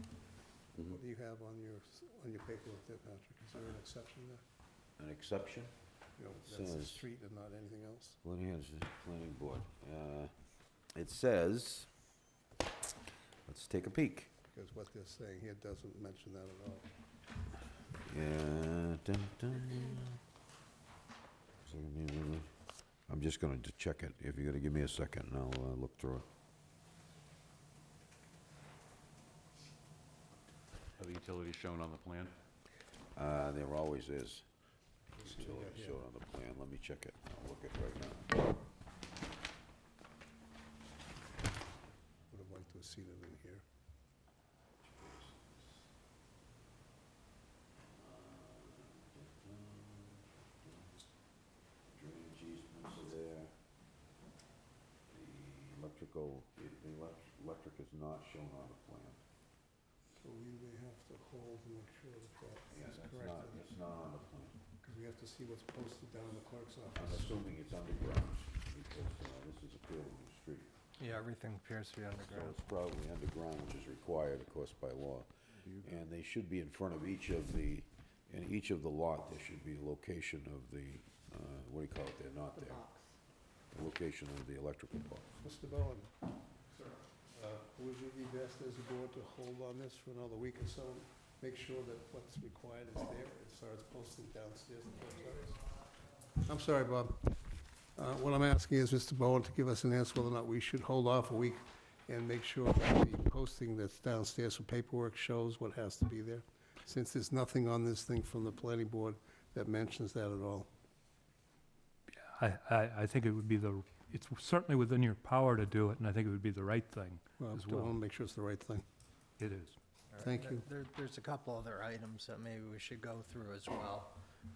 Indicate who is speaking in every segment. Speaker 1: Mm-hmm.
Speaker 2: you have on your, on your paperwork there, Patrick? Is there an exception there?
Speaker 1: An exception?
Speaker 2: You know, that's the
Speaker 1: Says-
Speaker 2: street and not anything else?
Speaker 1: Lineage Planning Board. Uh, It says, let's take a peek.
Speaker 2: Because what they're saying here doesn't mention that at all.
Speaker 1: Yeah, dun, dun. So give me a minute. I'm just going to check it. If you're going to give me a second, and I'll uh, look through it.
Speaker 3: Are the utilities shown on the plan?
Speaker 1: Uh, There always is. See,
Speaker 2: check
Speaker 1: I'll
Speaker 2: it here.
Speaker 1: Show it on the plan. Let me check it. I'll look at it right now.
Speaker 2: Would have liked to have seen it in here.
Speaker 1: Drainage easements are there. The electrical, the elec- electric is not shown on the plan.
Speaker 2: So we may have to hold and make sure that that
Speaker 1: Yeah,
Speaker 2: is
Speaker 1: that's
Speaker 2: correct.
Speaker 1: not, it's not on the plan.
Speaker 2: Because we have to see what's posted down in the clerk's
Speaker 1: I'm
Speaker 2: office.
Speaker 1: assuming it's underground, because uh, this is a field street.
Speaker 4: Yeah, everything appears to be
Speaker 1: So
Speaker 4: underground.
Speaker 1: it's probably underground, which is required, of course, by law. And they should be in front of each of the, in each of the lot, there should be a location of the, uh, what do you call it, they're not there. The location of the electrical box.
Speaker 2: Mr. Bowen? Sir. Would it be best as a board to hold on this for another week or so? Make sure that what's required is there as far as posting downstairs in the clerk's office? I'm sorry, Bob. Uh, What I'm asking is Mr. Bowen to give us an answer whether or not we should hold off a week and make sure that the posting that's downstairs for paperwork shows what has to be there, since there's nothing on this thing from the planning board that mentions that at all.
Speaker 5: I, I, I think it would be the, it's certainly within your power to do it, and I think it would be the right thing.
Speaker 2: Well,
Speaker 5: As
Speaker 2: I
Speaker 5: well.
Speaker 2: want to Uh, make sure it's the right thing.
Speaker 5: It is.
Speaker 4: All right,
Speaker 2: Thank
Speaker 4: there-
Speaker 2: you.
Speaker 4: There, there's a couple other items that maybe we should go through as well.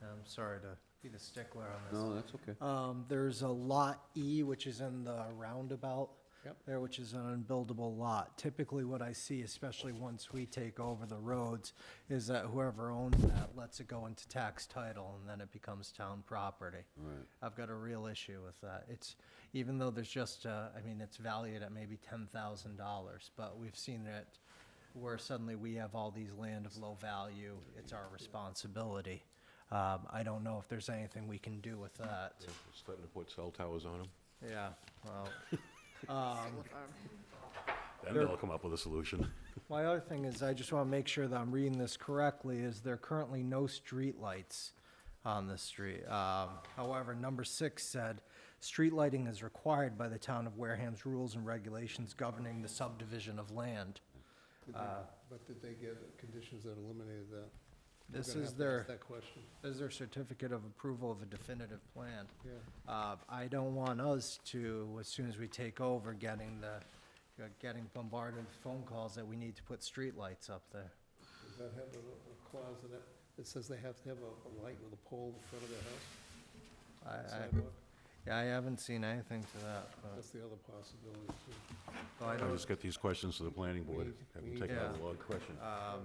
Speaker 4: I'm sorry to be the stickler on this.
Speaker 1: that's okay.
Speaker 4: Um, there's a Lot E, which is in the roundabout.
Speaker 2: Yep.
Speaker 4: There, which is an unbuildable lot. Typically, what I see, especially once we take over the roads, is that whoever owns that lets it go into tax title, and then it becomes town property.
Speaker 1: Right.
Speaker 4: I've got a real issue with that. It's, even though there's just, uh, I mean, it's valued at maybe ten thousand dollars, but we've seen that where suddenly we have all these land of low value, it's our responsibility. Um, I don't know if there's anything we can do with that.
Speaker 3: Starting to put cell towers on them.
Speaker 4: Yeah, well, um,
Speaker 3: Then they'll come up with a solution.
Speaker 4: my other thing is, I just wanna make sure that I'm reading this correctly, is there are currently no streetlights on the street. Um, however, number six said, "Street lighting is required by the town of Wareham's rules and regulations governing the subdivision of land."
Speaker 2: Did they-
Speaker 4: Uh,
Speaker 2: But did they get conditions that eliminated that? We're
Speaker 4: This
Speaker 2: gonna
Speaker 4: is
Speaker 2: have to ask
Speaker 4: their,
Speaker 2: That question,
Speaker 4: this is their certificate of approval of a definitive plan.
Speaker 2: yeah.
Speaker 4: Uh, I don't want us to, as soon as we take over, getting the, uh, getting bombarded with phone calls that we need to put streetlights up there.
Speaker 2: Does that have a a clause in it that says they have to have a a light with a pole in front of their house?
Speaker 4: I, I,
Speaker 2: sidewalk?
Speaker 4: yeah, I haven't seen anything to that, but,
Speaker 2: That's the other possibility, too.
Speaker 4: but I
Speaker 3: I'll
Speaker 4: don't,
Speaker 3: just get these questions to the planning
Speaker 2: We
Speaker 3: board,
Speaker 2: need-
Speaker 3: have
Speaker 2: we
Speaker 3: them
Speaker 2: need
Speaker 3: take out
Speaker 4: to-
Speaker 3: a log.
Speaker 1: Question.
Speaker 4: um,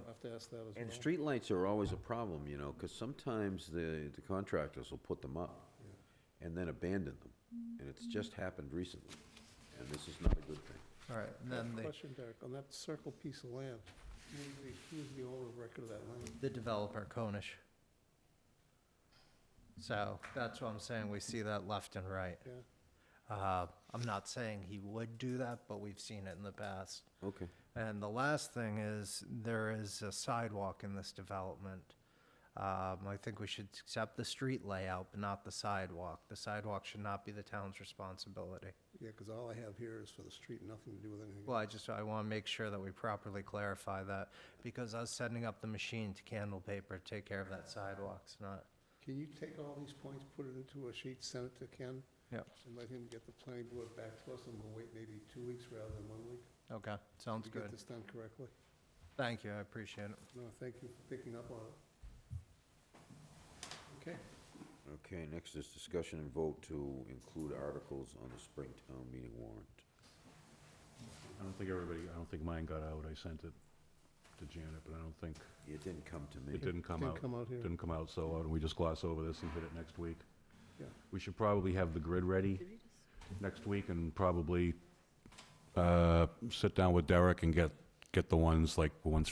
Speaker 2: I have to ask that as well.
Speaker 1: And streetlights are always a problem, you know, because sometimes the, the contractors will put them up and then abandon them. And it's just happened recently, and this is not a good thing.
Speaker 4: all right, and then the,
Speaker 2: Question, Derek, on that circle piece of land, who's the, who's the owner of record of that land?
Speaker 4: the developer, Konish. So, that's what I'm saying, we see that left and right.
Speaker 2: Yeah,
Speaker 4: Uh, I'm not saying he would do that, but we've seen it in the past.
Speaker 1: Okay.
Speaker 4: And the last thing is, there is a sidewalk in this development. Um, I think we should accept the street layout, but not the sidewalk. The sidewalk should not be the town's responsibility.
Speaker 2: yeah, because all I have here is for the street, nothing to do with anything.
Speaker 4: Well, I just, I want to make sure that we properly clarify that, because us setting up the machine to candle paper, take care of that sidewalk's not.
Speaker 2: Can you take all these points, put it into a sheet, send it to Ken?
Speaker 4: Yep.
Speaker 2: And let him get the planning board back to us, and we'll wait maybe two weeks rather than one week?
Speaker 4: Okay, sounds
Speaker 2: To get
Speaker 4: good.
Speaker 2: this done correctly?
Speaker 4: Thank you, I appreciate it.
Speaker 2: No, thank you for picking up on it. Okay,
Speaker 1: Okay, next is discussion and vote to include articles on the spring town meeting warrant.
Speaker 3: I don't think everybody, I don't think mine got out. I sent it to Janet, but I don't think,
Speaker 1: It didn't come to me.
Speaker 3: it didn't come
Speaker 2: didn't
Speaker 3: out.
Speaker 2: come out here.
Speaker 3: Didn't come out, so why don't we just gloss over this and hit it next week?
Speaker 2: Yeah.
Speaker 3: We should probably have the grid ready next week and probably uh, sit down with Derek and get, get the ones, like, the ones